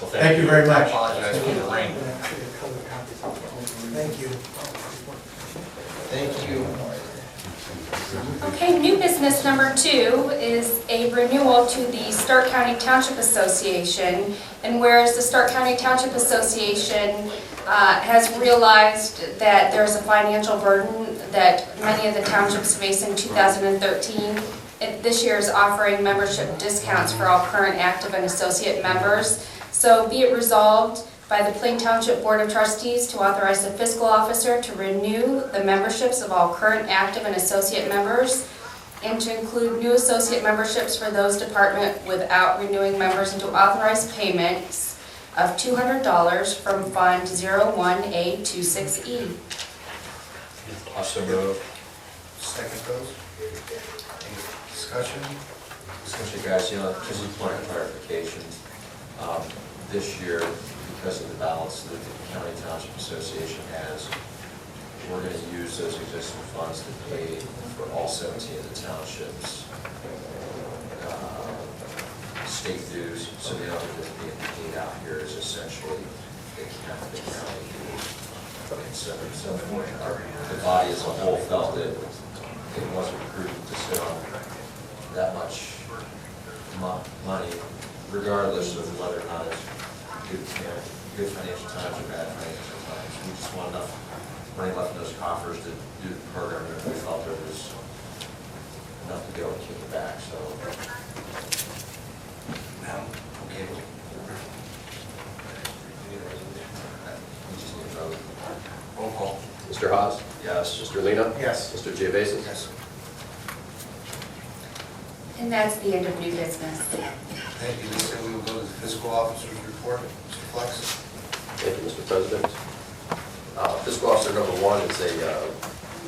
Well, Thank you very I much. apologize for the rain. Thank you. Thank you. Okay, new business number two is a renewal to the Stark County Township Association. And whereas the Stark County Township Association uh, has realized that there's a financial burden that many of the townships face in 2013, it- this year is offering membership discounts for all current active and associate members. So be it resolved by the Plain Township Board of Trustees to authorize the fiscal officer to renew the memberships of all current active and associate members and to include new associate memberships for those department without renewing members and to authorize payments of $200 from Fund 01A26E. Also move. Second goes. Any discussion? Essentially, guys, you know, just a point of clarification. Um, This year, because of the balance that the County Township Association has, we're going to use those existing funds to pay for all 17 of the townships' uh, state dues, so the other that's being paid out here is essentially the county, the county dues. And so, so our- the body as a whole felt that it wasn't prudent to sit on that much mo- money, regardless of whether or not it's good, time- good financial times or bad financial times. We just want enough money left in those coffers to do the program, and we felt there was enough to go and kick it back, so. Now, okay. We just need a vote. Roll call. Mr. Haas? Yes. Mr. Lino? Yes. Mr. Geovasis? Yes. And that's the end of new business. Thank you, Lisa. We will go to the fiscal officer's report. Mr. Flex? Thank you, Mr. President. Uh, Fiscal Officer number one is a uh,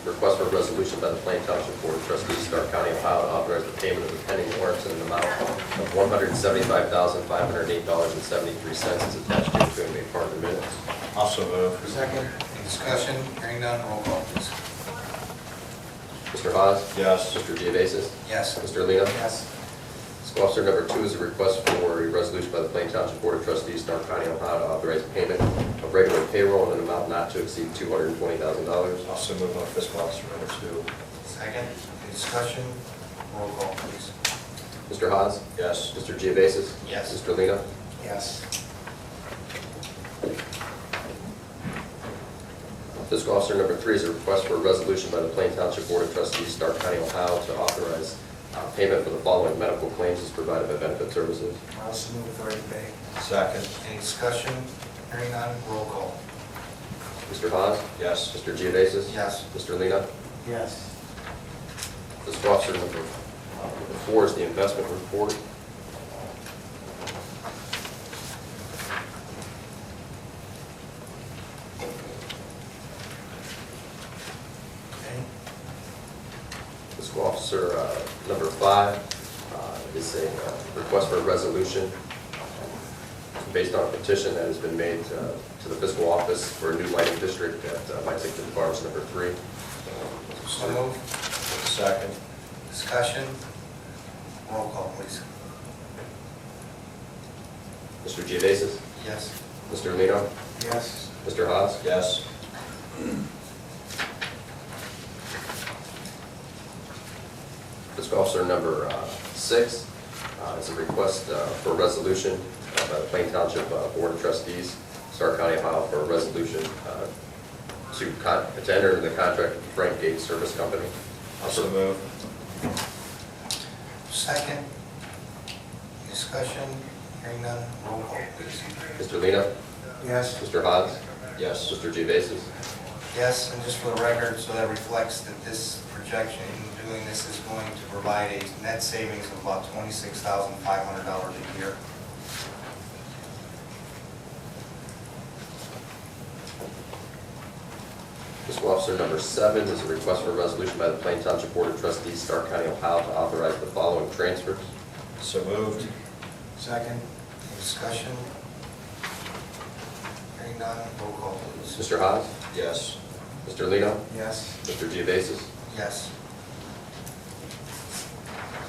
request for a resolution by the Plain Township Board of Trustees, Stark County, Ohio, to authorize the payment of the pending warrants in an amount of $175,508.73 as attached to the Green Bay Part of the Minutes. Also vote. Second. Any discussion? Hearing none, roll call, please. Mr. Haas? Yes. Mr. Geovasis? Yes. Mr. Lino? Yes. Fiscal Officer number two is a request for a resolution by the Plain Township Board of Trustees, Stark County, Ohio, to authorize payment of regular payroll in an amount not to exceed $220,000. Also move on fiscal officer number two. Second. Any discussion? Roll call, please. Mr. Haas? Yes. Mr. Geovasis? Yes. Mr. Lino? Yes. Fiscal Officer number three is a request for a resolution by the Plain Township Board of Trustees, Stark County, Ohio, to authorize uh, payment for the following medical claims as provided by benefit services. I'll also move authority to pay. Second. Any discussion? Hearing none, roll call. Mr. Haas? Yes. Mr. Geovasis? Yes. Mr. Lino? Yes. Fiscal Officer number uh, number four is the investment report. Okay. Fiscal Officer uh, number five uh, is a uh, request for a resolution based on a petition that has been made uh, to the fiscal office for a new lighting district at uh, Lexington Farms number three. So move. Second. Discussion? Roll call, please. Mr. Geovasis? Yes. Mr. Lino? Yes. Mr. Haas? Yes. Fiscal Officer number uh, six uh, is a request uh, for a resolution uh, by the Plain Township uh, Board of Trustees, Stark County, Ohio, for a resolution uh, to con- to enter into the contract with Frank Gates Service Company. Also move. Second. Discussion? Hearing none, roll call, please. Mr. Lino? Yes. Mr. Haas? Yes. Mr. Geovasis? Yes, and just for the record, so that reflects that this projection, doing this is going to provide a net savings of about twenty-six thousand five hundred dollars a year. Fiscal Officer number seven is a request for a resolution by the Plain Township Board of Trustees, Stark County, Ohio, to authorize the following transfers. So moved. Second. Any discussion? Hearing none, roll call, please. Mr. Haas? Yes. Mr. Lino? Yes. Mr. Geovasis? Yes.